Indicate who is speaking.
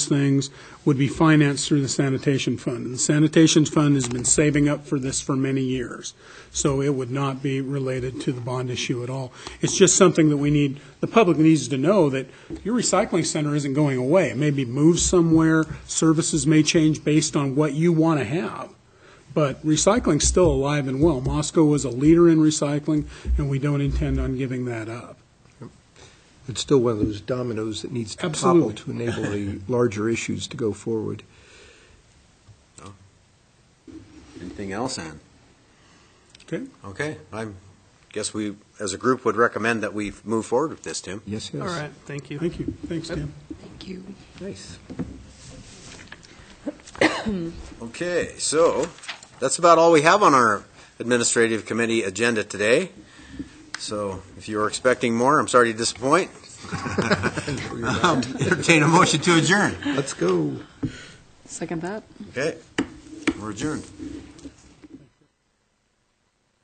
Speaker 1: things would be financed through the sanitation fund. And the sanitation fund has been saving up for this for many years, so it would not be related to the bond issue at all. It's just something that we need, the public needs to know that your recycling center isn't going away. It may be moved somewhere, services may change based on what you want to have. But recycling's still alive and well. Moscow was a leader in recycling, and we don't intend on giving that up.
Speaker 2: It's still one of those dominoes that needs to topple
Speaker 1: Absolutely.
Speaker 2: to enable the larger issues to go forward.
Speaker 3: Anything else, Ann?
Speaker 1: Okay.
Speaker 3: Okay, I guess we, as a group, would recommend that we move forward with this, Tim.
Speaker 2: Yes, yes.
Speaker 4: All right, thank you.
Speaker 1: Thank you. Thanks, Tim.
Speaker 5: Thank you.
Speaker 2: Nice.
Speaker 3: Okay, so that's about all we have on our administrative committee agenda today. So if you were expecting more, I'm sorry to disappoint. Entertain a motion to adjourn.
Speaker 2: Let's go.
Speaker 5: Second that.
Speaker 3: Okay, we're adjourned.